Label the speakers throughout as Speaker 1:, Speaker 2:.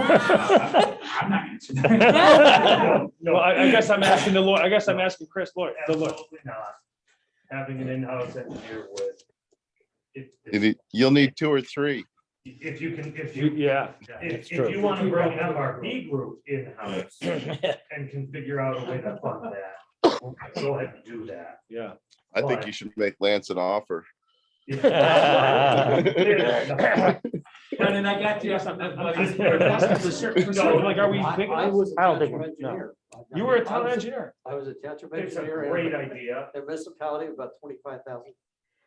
Speaker 1: I'm not answering that.
Speaker 2: Well, I, I guess I'm asking the lawyer, I guess I'm asking Chris lawyer, the lawyer.
Speaker 1: Absolutely not. Having an in-house engineer would. if-
Speaker 3: You need- You'll need two or three.
Speaker 1: If you can, if
Speaker 2: You-
Speaker 1: you,
Speaker 2: Yeah,
Speaker 1: if,
Speaker 4: That's
Speaker 1: if you
Speaker 4: true.
Speaker 1: want to bring MRP group in-house and can figure out a way to fund that, go ahead and do that.
Speaker 2: yeah.
Speaker 3: I think you should make Lance an offer.
Speaker 1: Yeah.
Speaker 2: Brendan, I got to ask something.
Speaker 1: No,
Speaker 2: Like, are we big
Speaker 4: I
Speaker 2: enough?
Speaker 4: was. a
Speaker 5: I don't think
Speaker 4: town
Speaker 5: we- no.
Speaker 4: engineer.
Speaker 2: You were a
Speaker 4: I
Speaker 2: town
Speaker 4: was-
Speaker 2: engineer.
Speaker 4: I was a township
Speaker 1: It's a
Speaker 4: engineer.
Speaker 1: great idea.
Speaker 4: The municipality of about twenty-five thousand.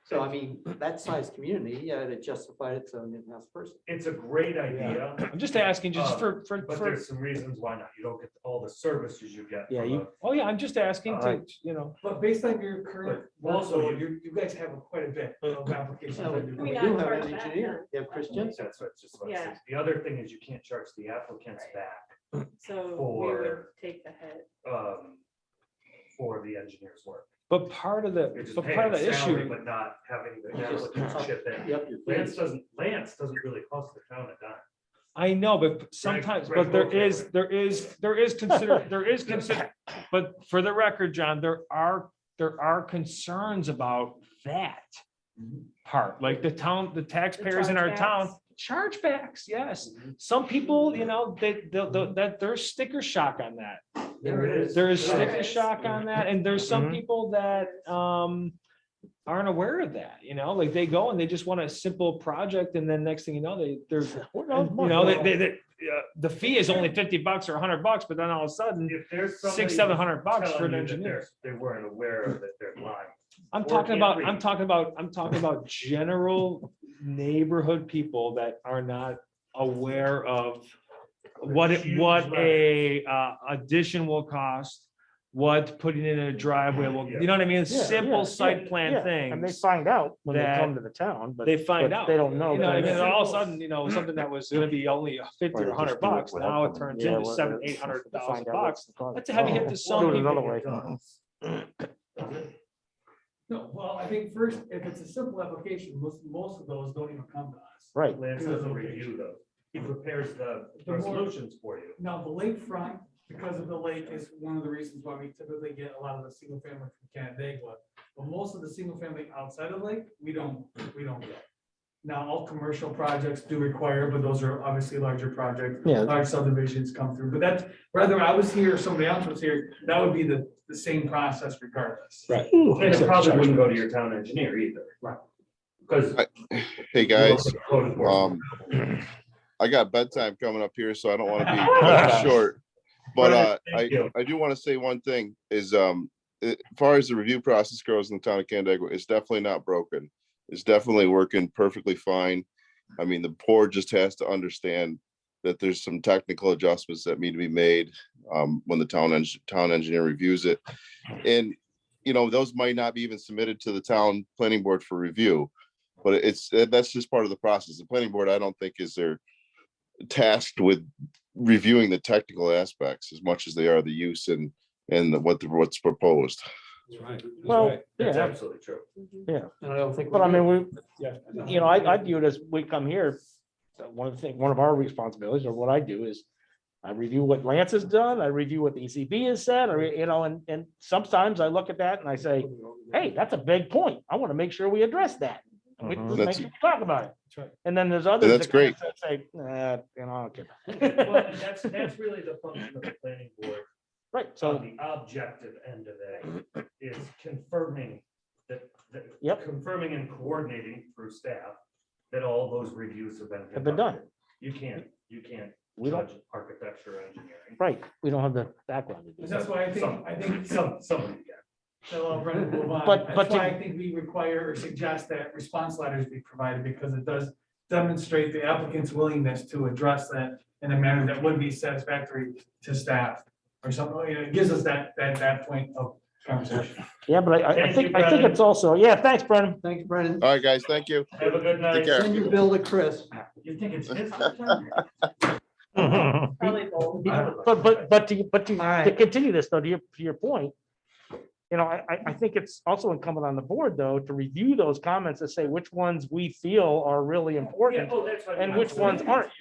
Speaker 4: So I mean, that size community, yeah, it justified its own in-house person.
Speaker 1: It's a great idea,
Speaker 2: I'm just asking just for, for,
Speaker 1: Uh, but
Speaker 2: for,
Speaker 1: there's some reasons why not. You don't get all the services you get.
Speaker 5: Yeah,
Speaker 1: from
Speaker 5: you-
Speaker 1: a-
Speaker 2: oh yeah, I'm just asking to,
Speaker 5: Alright.
Speaker 2: you know.
Speaker 6: But based on your current
Speaker 1: But also
Speaker 6: workload,
Speaker 1: you-
Speaker 6: you, you guys have quite a bit
Speaker 2: Uh,
Speaker 6: of applications.
Speaker 4: So
Speaker 6: that you're
Speaker 4: We
Speaker 6: doing.
Speaker 4: do
Speaker 7: not
Speaker 4: have
Speaker 7: charge
Speaker 4: an
Speaker 7: back,
Speaker 4: engineer,
Speaker 7: no.
Speaker 4: you have Chris Jensen.
Speaker 1: That's what it's just. what it
Speaker 7: Yeah.
Speaker 1: says. The other thing is you can't charge the applicants
Speaker 7: Right.
Speaker 1: back
Speaker 7: So we would
Speaker 1: For-
Speaker 7: take the hit.
Speaker 1: um, for the engineer's work.
Speaker 2: But part of
Speaker 1: You're
Speaker 2: the,
Speaker 1: just
Speaker 2: but
Speaker 1: paying
Speaker 2: part of
Speaker 1: the
Speaker 2: the
Speaker 1: salary,
Speaker 2: issue,
Speaker 1: But not having the
Speaker 4: You just-
Speaker 1: applicants chip in.
Speaker 4: Yep, your
Speaker 1: Lance
Speaker 4: fees.
Speaker 1: doesn't, Lance doesn't really cost the town a dime.
Speaker 2: I know, but sometimes,
Speaker 1: Greg
Speaker 2: but there
Speaker 1: Wolf, yeah,
Speaker 2: is,
Speaker 1: right.
Speaker 2: there is, there is consider, there is consider. But for the record, John, there are, there are concerns about that
Speaker 4: Mm-hmm.
Speaker 2: part, like the town, the taxpayers in our town, chargebacks, yes. Some people, you know, they, they'll, they'll- that there's sticker shock on that.
Speaker 1: There it is.
Speaker 2: There is
Speaker 7: Sure.
Speaker 2: sticker shock on that, and there's some
Speaker 5: Mhm.
Speaker 2: people that um aren't aware of that, you know, like they go and they just want a simple project, and then next thing you know, they, they're, you know, they, they, they- uh, the fee is only fifty bucks or hundred bucks, but then all of a sudden,
Speaker 1: If there's somebody
Speaker 2: six, seven
Speaker 1: who's
Speaker 2: hundred bucks for
Speaker 1: telling
Speaker 2: an
Speaker 1: you that
Speaker 2: engineer.
Speaker 1: they're- They weren't aware of that they're lying.
Speaker 2: I'm
Speaker 1: or
Speaker 2: talking
Speaker 1: can't
Speaker 2: about, I'm
Speaker 1: read.
Speaker 2: talking about, I'm talking about general neighborhood people that are not aware of what, it-
Speaker 1: Huge
Speaker 2: what
Speaker 1: letter.
Speaker 2: a uh, addition will cost, what putting in a driveway will, you know what I
Speaker 5: Yeah,
Speaker 2: mean?
Speaker 5: yeah, yeah,
Speaker 2: Simple site
Speaker 5: yeah.
Speaker 2: plan
Speaker 5: And they
Speaker 2: things.
Speaker 5: find out when they
Speaker 2: that
Speaker 5: come to the town, but.
Speaker 2: They find
Speaker 5: but
Speaker 2: out.
Speaker 5: They don't know.
Speaker 2: You know, what I mean?
Speaker 5: that-
Speaker 2: And all of a sudden, you know, something that was gonna be only fifty
Speaker 5: Or
Speaker 2: or
Speaker 5: they
Speaker 2: hundred
Speaker 5: just do it
Speaker 2: bucks,
Speaker 5: without
Speaker 2: now it
Speaker 5: coming.
Speaker 2: turns
Speaker 5: Yeah,
Speaker 2: into
Speaker 5: what-
Speaker 2: seven,
Speaker 5: what-
Speaker 2: eight hundred
Speaker 5: find
Speaker 2: thousand
Speaker 5: out what's
Speaker 2: bucks.
Speaker 5: the cost.
Speaker 2: That's a heavy hit
Speaker 5: Oh,
Speaker 2: to some
Speaker 5: do it
Speaker 2: people.
Speaker 5: another way.
Speaker 6: No, well, I think first, if it's a simple application, most, most of those don't even come to us.
Speaker 5: Right.
Speaker 1: Lance doesn't review those. He prepares the
Speaker 6: The more-
Speaker 1: resolutions for you.
Speaker 6: Now, the lakefront, because of the lake, is one of the reasons why we typically get a lot of the single family from Canandaigua. But most of the single family outside of the lake, we don't, we don't get. Now, all commercial projects do require, but those are obviously larger projects.
Speaker 5: Yeah.
Speaker 6: large subdivisions come through, but that's, whether I was here or somebody else was here, that would be the, the same process regardless.
Speaker 2: Right.
Speaker 1: And it probably wouldn't go to your town engineer either.
Speaker 6: Right.
Speaker 1: Because.
Speaker 3: I- Hey, guys, um, I got bedtime coming up here, so I don't want to be cut short. But uh, I,
Speaker 1: Thank you.
Speaker 3: I do want to say one thing is, um, as far as the review process goes in the town of Canandaigua, it's definitely not broken. It's definitely working perfectly fine. I mean, the board just has to understand that there's some technical adjustments that need to be made um, when the town eng- town engineer reviews it. And, you know, those might not be even submitted to the town planning board for review. But it's, that's just part of the process. The planning board, I don't think is there tasked with reviewing the technical aspects as much as they are the use and, and the- what, the- what's proposed.
Speaker 5: Well,
Speaker 1: That's
Speaker 5: yeah,
Speaker 1: absolutely true.
Speaker 4: And I don't think. we
Speaker 5: but I
Speaker 4: do.
Speaker 5: mean, we,
Speaker 2: Yeah.
Speaker 5: you know, I, I view it as we come here, uh, one of the things, one of our responsibilities or what I do is I review what Lance has done, I review what the ECB has said, or, you know, and, and sometimes I look at that and I say, hey, that's a big point. I want to make sure we address that. And we,
Speaker 4: Mhm.
Speaker 5: let's make
Speaker 3: Mm-hmm. That's-
Speaker 5: sure we talk about it.
Speaker 2: That's right.
Speaker 5: And then there's others.
Speaker 3: that's
Speaker 5: that kinda Say, nah, you know, I don't care.
Speaker 1: Well, and That's, that's really the function of the planning board.
Speaker 5: Right, so,
Speaker 1: So the objective end of it is confirming that, that.
Speaker 5: Yep.
Speaker 1: Confirming and coordinating through staff that all those reviews have been.
Speaker 5: Have been done.
Speaker 1: conducted. You can't, you can't
Speaker 5: we don't,
Speaker 1: judge architecture or engineering.
Speaker 5: right, we don't have the background to do
Speaker 6: That's
Speaker 5: that.
Speaker 6: why I
Speaker 1: Some,
Speaker 6: think, I think,
Speaker 1: some, some, of you can.
Speaker 6: so I'll run it, move on.
Speaker 5: But- but
Speaker 6: That's why
Speaker 5: to-
Speaker 6: I think we require or suggest that response letters be provided, because it does demonstrate the applicant's willingness to address that in a manner that would be satisfactory to staff, or something, you know, it gives us that, that, that point of conversation.
Speaker 5: Yeah, but I- I, I
Speaker 1: Thank
Speaker 5: think,
Speaker 1: you,
Speaker 5: I think
Speaker 1: Brennan.
Speaker 5: it's also, yeah, thanks, Brendan.
Speaker 4: Thank you, Brendan.
Speaker 3: All right, guys, thank you.
Speaker 1: Have a good night.
Speaker 3: Take care.
Speaker 4: Send your bill to Chris.
Speaker 1: You think it's his?
Speaker 5: But,
Speaker 7: Probably both.
Speaker 5: but, but to, but to, to
Speaker 4: Alright.
Speaker 5: continue this though, to your, to your point. You know, I, I, I think it's also incumbent on the board though, to review those comments and say which ones we feel are really
Speaker 1: Yeah,
Speaker 5: important.
Speaker 1: oh, that's what I
Speaker 5: And
Speaker 1: mean.
Speaker 5: which ones aren't?